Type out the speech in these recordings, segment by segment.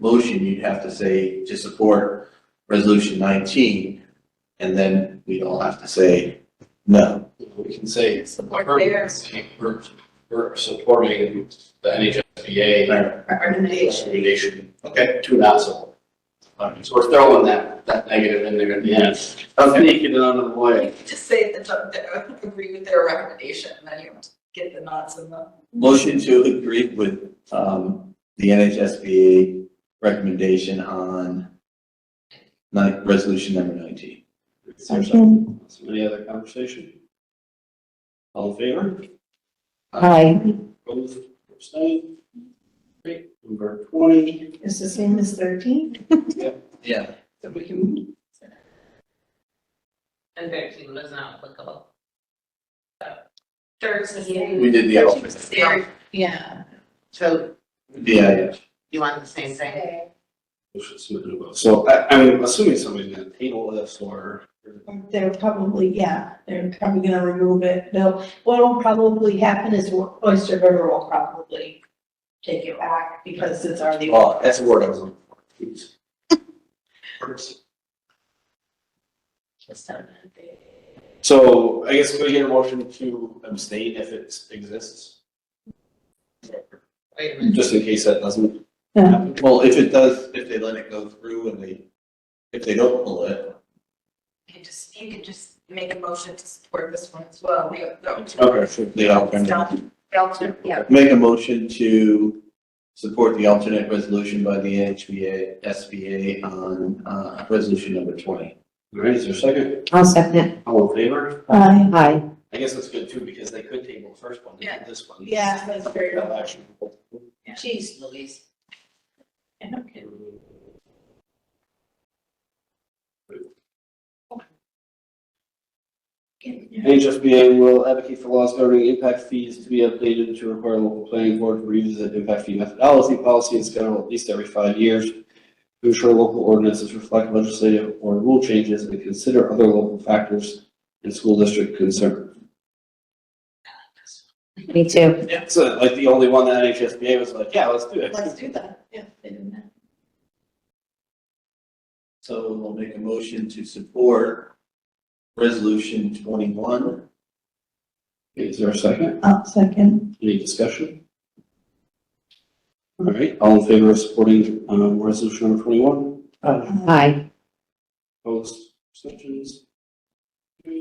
motion, you'd have to say to support resolution nineteen, and then we'd all have to say no. We can say, Support we're, their we're- we're supporting the NHSBA recommendation. recommendation to not support. All right, So we're throwing that, that negative in there at the end. I'm sneaking it under the You way. could just say that, don't- that agree with their recommendation, and then you get the nods and the. Motion to agree with, um, the NHSBA recommendation on nine, resolution number nineteen. Second. Any other conversation? All in favor? Hi. Opposed, abstained? Great, number twenty. It's the same as thirteen? Yeah. That we can. And thirteen was not applicable. Thursday. We did the, Thursday. opposite. Yeah. So yeah, yeah. you want the same thing? We should submit a vote. So I, I'm assuming somebody's gonna table this or. They're probably, yeah, they're probably gonna remove it. They'll, what'll probably happen is Oyster River will probably take it back because it's already. Oh, that's a word I was looking for. So I guess we get a motion to abstain if it exists, Wait a minute. just in case that doesn't. Yeah. Well, if it does, if they let it go through and they, if they don't pull it, You could just, you could just make a motion to support this one as well, the, the. Okay, sure. the alternate. Belcher, yeah. Make a motion to support the alternate resolution by the NHBA, SBA on, uh, resolution number twenty. All right, is there a second? I'll second. All in favor? Aye. Aye. I guess that's good too, because they could table the first one, they did this one. Yeah, that's very. No action. Jeez Louise. Okay. NHSBA will advocate for laws governing impact fees to be updated to require local planning board to revisit impact fee methodology policy and schedule at least every five years to ensure local ordinances reflect legislative or rule changes and consider other local factors and school district concern. Me too. Yeah, so like the only one that NHSBA was like, yeah, let's do it. Let's do that. Yeah, they didn't have. So we'll make a motion to support resolution twenty-one. Is there a second? I'll second. Any discussion? All right, all in favor of supporting, um, resolution number twenty-one? Aye. Opposed, abstentions? I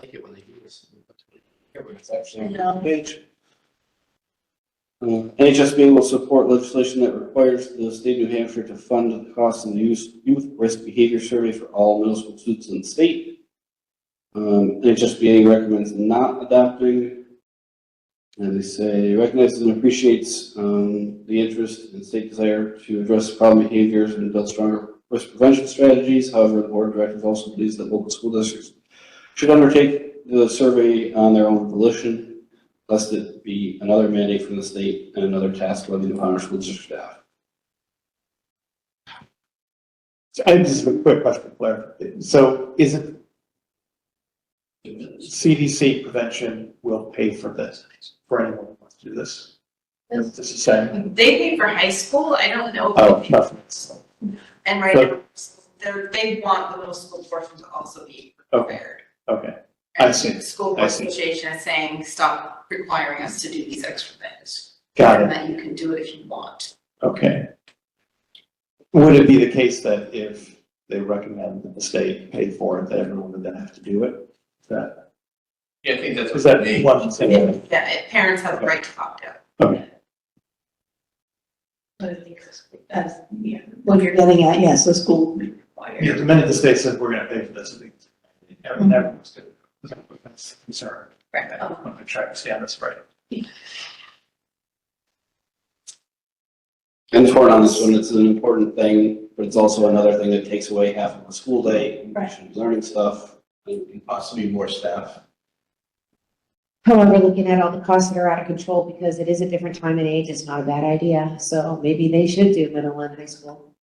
like it when they do this. Here, where it's actually on the No. page. Uh, NHSBA will support legislation that requires the state of New Hampshire to fund the cost of the youth, youth risk behavior survey for all middle school students in the state. Um, NHSBA recommends not adopting and they say recognizes and appreciates um, the interest and state desire to address problem behaviors and build stronger risk prevention strategies. However, the board of directors also believes that local school districts should undertake the survey on their own volition, lest it be another mandate from the state and another task levied upon our school district staff. So I just have a quick question, Blair. So is it CDC prevention will pay for this, for anyone who wants to do this? This is saying, They pay for high school, I don't know. oh, nothing. And right now, they're, they want the middle school portion to also be Okay. prepared. Okay, I see. And the School I board see. association is saying, stop requiring us to do these extra things. got And it, that you can do it if you want. okay. Would it be the case that if they recommend that the state pay for it, that everyone would then have to do it? Is That, Yeah, I think that's is that one thing? Yeah, it- parents have the right to opt out. But I think that's- that's, yeah, what you're getting at, yes, the school would be Yeah, required. the minute the state says we're gonna pay for this, I think everyone- everyone's gonna, that's a concern. Right. Oh. I'm gonna try to stand this right. And the on this one, it's an important thing, but it's also another thing that takes away half of the school day, and we Right. should be learning stuff. and- Possibly more staff. However, looking at all the costs that are out of control, because it is a different time and age, it's not a bad idea. So maybe they should do middle and high school.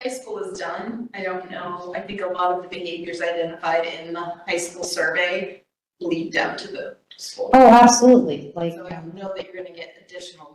High school is done. I don't know. I think a lot of the behaviors identified in the high school survey lead down to the school. Oh, absolutely, like. So I don't know that you're gonna get additional